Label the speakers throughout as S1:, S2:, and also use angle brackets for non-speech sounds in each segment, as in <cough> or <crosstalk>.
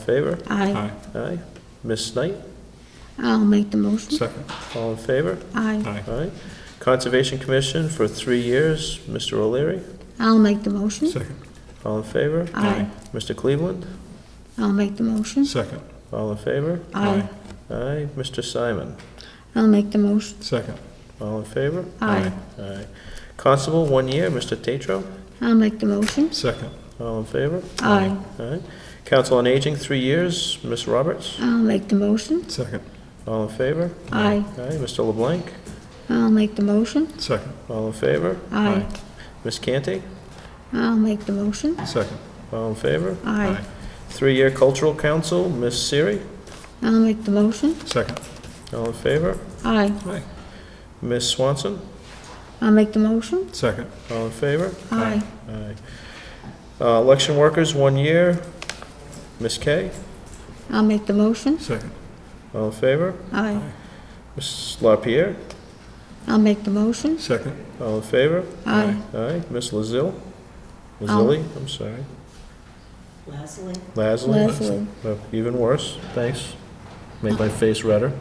S1: favor?
S2: Aye.
S3: Aye.
S1: Aye. Ms. Knight,
S2: I'll make the motion.
S3: Second.
S1: all in favor?
S2: Aye.
S3: Aye.
S1: Aye. Conservation Commission for three years, Mr. O'Leary,
S2: I'll make the motion.
S3: Second.
S1: all in favor?
S2: Aye.
S1: Mr. Cleveland,
S2: I'll make the motion.
S3: Second.
S1: all in favor?
S2: Aye.
S1: Aye. Mr. Simon,
S2: I'll make the motion.
S3: Second.
S1: all in favor?
S2: Aye.
S1: Aye. Constable, one year, Mr. Tatro,
S2: I'll make the motion.
S3: Second.
S1: all in favor?
S2: Aye.
S1: Aye. Council on Aging, three years, Ms. Roberts,
S2: I'll make the motion.
S3: Second.
S1: all in favor?
S2: Aye.
S1: Aye. Mr. LeBlanc,
S2: I'll make the motion.
S3: Second.
S1: all in favor?
S2: Aye.
S1: Ms. Canty,
S2: I'll make the motion.
S3: Second.
S1: all in favor?
S2: Aye.
S1: Three-year Cultural Council, Ms. Siri,
S2: I'll make the motion.
S3: Second.
S1: all in favor?
S2: Aye.
S3: Aye.
S1: Ms. Swanson,
S2: I'll make the motion.
S3: Second.
S1: all in favor?
S2: Aye.
S1: Aye. Uh, Election workers, one year. Ms. Kay,
S2: I'll make the motion.
S3: Second.
S1: all in favor?
S2: Aye.
S1: Ms. LaPierre,
S2: I'll make the motion.
S3: Second.
S1: all in favor?
S2: Aye.
S1: Aye. Ms. Lazille? Lazili,
S2: Oh.
S1: I'm sorry.
S4: Leslie,
S1: Lasley?
S2: Leslie.
S1: Well, Oh, Even worse, thanks. Made
S2: Oh.
S1: my face redder.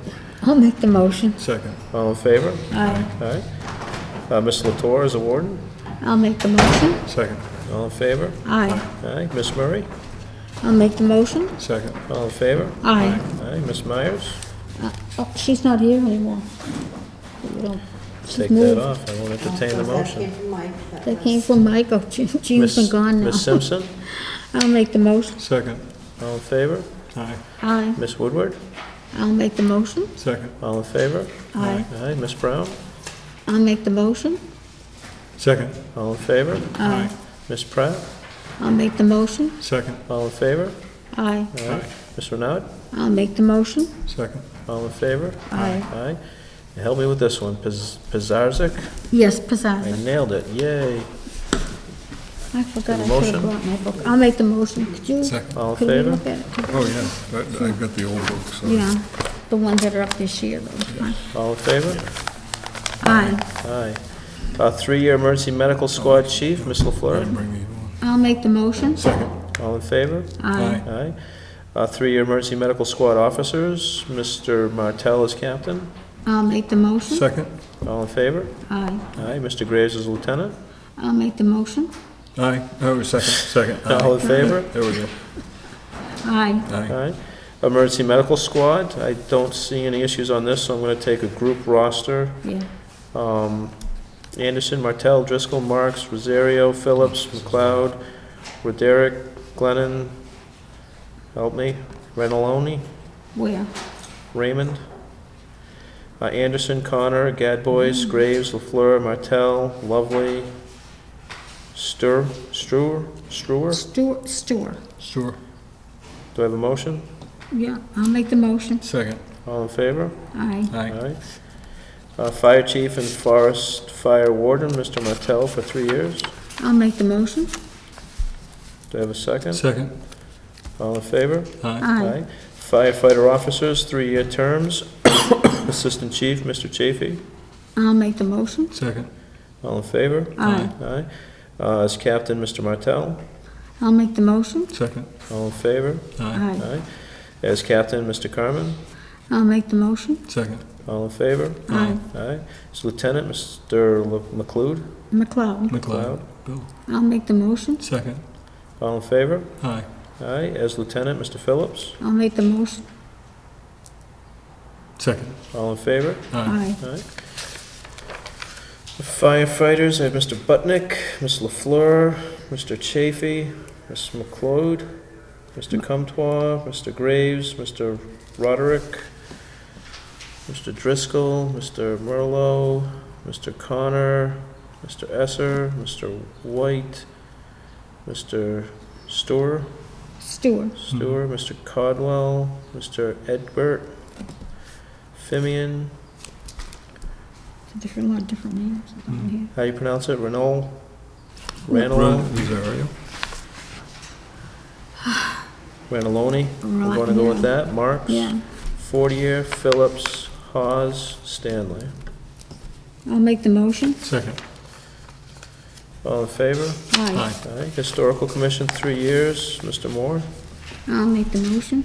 S2: I'll make the motion.
S3: Second.
S1: All in favor?
S2: Aye.
S1: Aye. Uh, Ms. Latour is a warden,
S2: I'll make the motion.
S3: Second.
S1: all in favor?
S2: Aye.
S1: Aye. Ms. Murray,
S2: I'll make the motion.
S3: Second.
S1: all in favor?
S2: Aye.
S1: Aye. Ms. Myers?
S2: Uh, Oh, she's not here anymore. You don't- she's
S1: Take that
S2: moved.
S1: off, I won't entertain the motion.
S2: They came from Michael. Jean- Jean's been
S1: Ms.
S2: gone
S1: Ms.
S2: now.
S1: Simpson,
S2: I'll make the motion.
S3: Second.
S1: all in favor?
S3: Aye.
S2: Aye.
S1: Ms. Woodward,
S2: I'll make the motion.
S3: Second.
S1: all in favor?
S2: Aye.
S1: Aye, Ms. Brown,
S2: I'll make the motion.
S3: Second.
S1: all in favor?
S2: Aye.
S1: Ms. Pratt,
S2: I'll make the motion.
S3: Second.
S1: all in favor?
S2: Aye.
S3: Aye.
S1: Ms. Renaud,
S2: I'll make the motion.
S3: Second.
S1: all in favor?
S2: Aye.
S1: Aye. And Help me with this one, Piz- Pizarzik,
S2: Yes,
S1: I
S2: Pizzazz.
S1: nailed it, yay.
S2: I forgot
S1: The
S2: I should
S1: motion.
S2: have brought my book. I'll make the motion. Could you?
S3: Second.
S1: All in
S2: Could we
S1: favor?
S2: look at it?
S5: Oh, yeah, I- I've got the old book, so.
S2: Yeah, the ones that are up this year, though.
S1: All in favor?
S2: Aye.
S1: Aye. Uh, Three-year Emergency Medical Squad Chief, Ms. LaFleur,
S5: Bring the one.
S2: I'll make the motion.
S3: Second.
S1: all in favor?
S2: Aye.
S1: Aye. Uh, Three-year Emergency Medical Squad Officers, Mr. Martell is captain,
S2: I'll make the motion.
S3: Second.
S1: all in favor?
S2: Aye.
S1: Aye. Mr. Graves is lieutenant,
S2: I'll make the motion.
S5: Aye.
S3: Oh, second. Second.
S1: all in favor?
S5: There we go.
S2: Aye.
S5: Aye.
S1: Aye. Emergency Medical Squad, I don't see any issues on this, so I'm gonna take a group roster.
S2: Yeah.
S1: Um, Anderson, Martell, Driscoll, Marks, Rosario, Phillips, McLeod, Roderick, Glennon, help me, Renaloni,
S2: Where?
S1: Raymond, uh, Anderson, Connor, Gadbois, Graves, LaFleur, Martell, Lovely, Stur, Struer, Struer?
S2: Stewart, Stewart.
S5: Sure.
S1: Do I have a motion?
S2: Yeah, I'll make the motion.
S5: Second.
S1: All in favor?
S2: Aye.
S5: Aye.
S1: Aye. Uh, Fire Chief and Forest Fire Warden, Mr. Martell, for three years.
S2: I'll make the motion.
S1: Do I have a second?
S5: Second.
S1: All in favor?
S5: Aye.
S2: Aye.
S1: Firefighter officers, three-year terms. <coughs> Assistant Chief, Mr. Chafee.
S2: I'll make the motion.
S5: Second.
S1: All in favor?
S2: Aye.
S1: Aye. Uh, As Captain, Mr. Martell.
S2: I'll make the motion.
S5: Second.
S1: All in favor?
S5: Aye.
S2: Aye.
S1: Aye. As Captain, Mr. Carmen.
S2: I'll make the motion.
S5: Second.
S1: All in favor?
S2: Aye.
S1: Aye. As Lieutenant, Mr. Le- McLeod.
S2: McLeod.
S5: McLeod. Bill.
S2: I'll make the motion.
S5: Second.
S1: All in favor?
S5: Aye.
S1: Aye. As Lieutenant, Mr. Phillips.
S2: I'll make the motion.
S5: Second.
S1: All in favor?
S5: Aye.
S2: Aye.
S1: Alright. Firefighters, I have Mr. Butnick, Ms. LaFleur, Mr. Chafee, Ms. McLeod, Mr. Comtois, Mr. Graves, Mr. Roderick, Mr. Driscoll, Mr. Merlot, Mr. Connor, Mr. Esser, Mr. White, Mr. Storer,
S2: Stewart.
S1: Stewart, Mr. Codwell, Mr. Edbert, Fimian,
S2: It's a different, a lot of different names down
S5: Mm.
S2: here.
S1: how you pronounce it, Renault?
S5: Ron
S1: Ranello,
S5: Rosario.
S1: Raneloni, we're gonna go with that, Marks,
S2: Yeah.
S1: Fortier, Phillips, Hawes, Stanley.
S2: I'll make the motion.
S5: Second.
S1: All in favor?
S2: Aye.
S5: Aye.
S1: Aye. Historical Commission, three years, Mr. Moore,
S2: I'll make the motion.